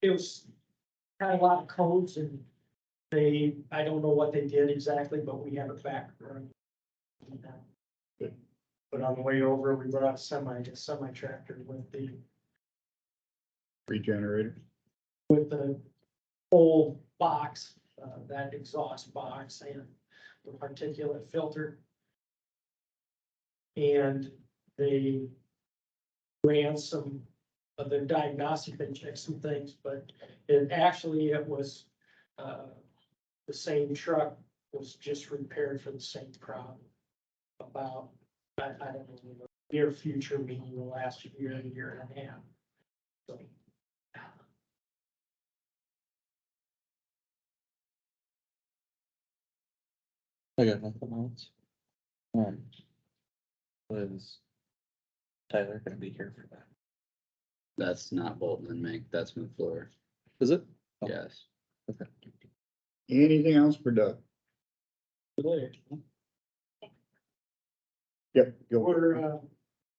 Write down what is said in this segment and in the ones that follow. it was kind of a lot of codes and they, I don't know what they did exactly, but we have it back. But on the way over, we brought semi, a semi tractor with the, Three generators. with the whole box, uh, that exhaust box and the particulate filter. And they ran some of their diagnostic and checked some things, but it actually, it was, uh, the same truck was just repaired for the same problem. About, I, I don't know, near future, meaning the last year, year and a half. So, I got nothing else. Um. Was. Tyler gonna be here for that? That's not Bolton and Mink, that's McFlure, Is it? Oh. yes. Okay. Anything else for Doug? Yep. go. Or, uh,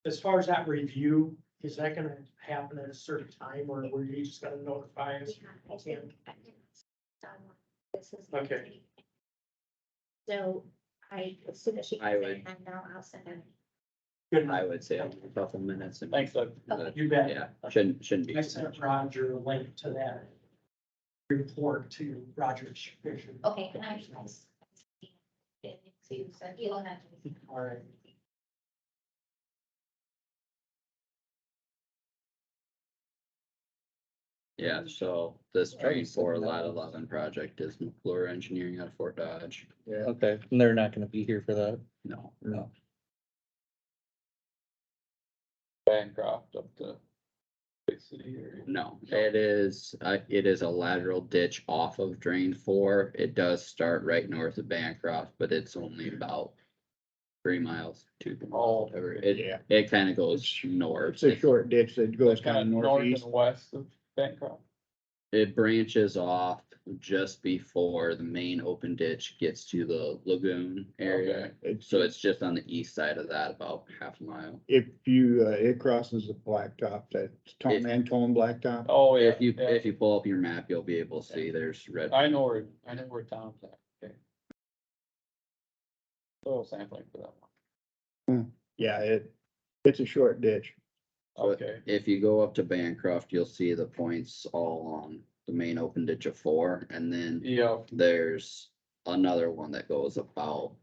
as far as that review, is that gonna happen at a certain time or were you just gonna notify us? I think, I think it's done. This is. Okay. So I, as soon as she I can would- say, I'm now, I'll send it. Good I night. would say only a couple minutes. and- Thanks, Doug. But, You bet. Yeah, shouldn't, shouldn't be. I sent Roger a link to that report to Roger Fisher. Okay, and I, I. s- it to send- you'll have to- All right. Yeah, so this train four lot eleven project is McClure Engineering out of Fort Dodge. Yeah, Okay, and they're not gonna be here for that. No, No. Bancroft up to Big City area. no, it is, uh, it is a lateral ditch off of drain four. It does start right north of Bancroft, but it's only about three miles, two miles, Oh. whatever. It, yeah. it kind of goes north. It's a short ditch that goes kind of Kinda north northeast. and west of Bancroft. it branches off just before the main open ditch gets to the lagoon area. Okay. It's, So it's just on the east side of that, about half a mile. if you, uh, it crosses the blacktop, that's Tom If- Antone Blacktop. Oh, yeah, If you, yeah. Uh, if you pull up your map, you'll be able to see there's red. I know where, I know where Tom's at, okay. Soil sampling for that Yeah, it, it's a short ditch. one. But- Okay, If you go up to Bancroft, you'll see the points all along the main open ditch of four, and then yeah, there's another one that goes about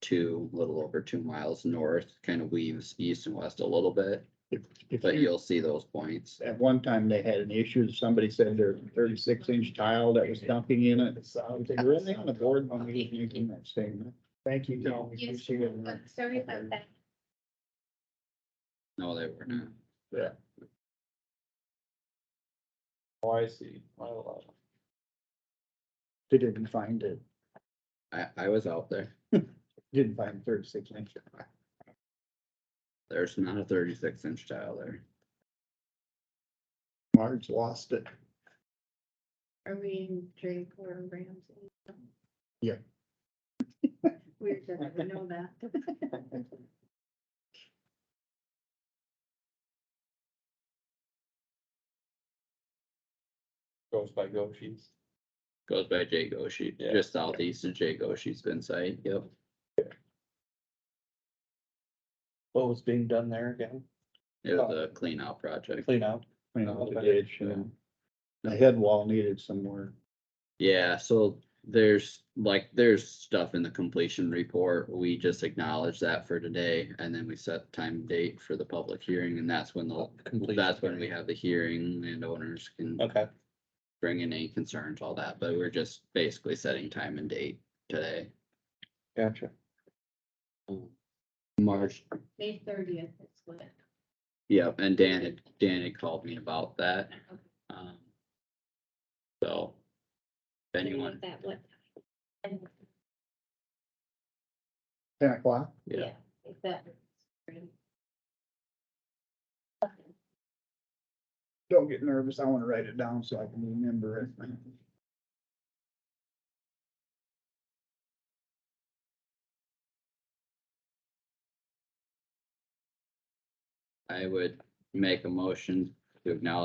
two, little over two miles north, kind of weaves east and west a little bit, If, if but you, you'll see those points. at one time they had an issue, somebody said their thirty-six inch tile that was dumping in it. So they were really on the board when we were making that statement. Thank you, Tom. We Yes, appreciate it. but sorry about that. No, they were not. oh, I see, my lot. They didn't find it, I, I was out there. didn't find thirty-six inch. There's not a thirty-six inch tile there. Marge lost it. Are we in Drake or Ramsey? Yeah. We're gonna know that. goes by Goshi's. Goes by Jay Goshi, Yeah. just southeast of Jay Goshi's been site, yep. What was being done there again? It Oh. was a clean out project. Clean out. Clean out the ditch and Yeah. the head wall needed some more. Yeah, so there's, like, there's stuff in the completion report. We just acknowledge that for today. And then we set time and date for the public hearing and that's when the, Completion. that's when we have the hearing and owners can Okay, bring in any concerns, all that. But we're just basically setting time and date today. gotcha. March May thirtieth is what. Yeah, and Dan had, Dan had called me about that. Um, So, if anyone, That what? And, Ten o'clock? yeah, yeah, if that. Don't get nervous. I want to write it down so I can remember it. I would make a motion to acknowledge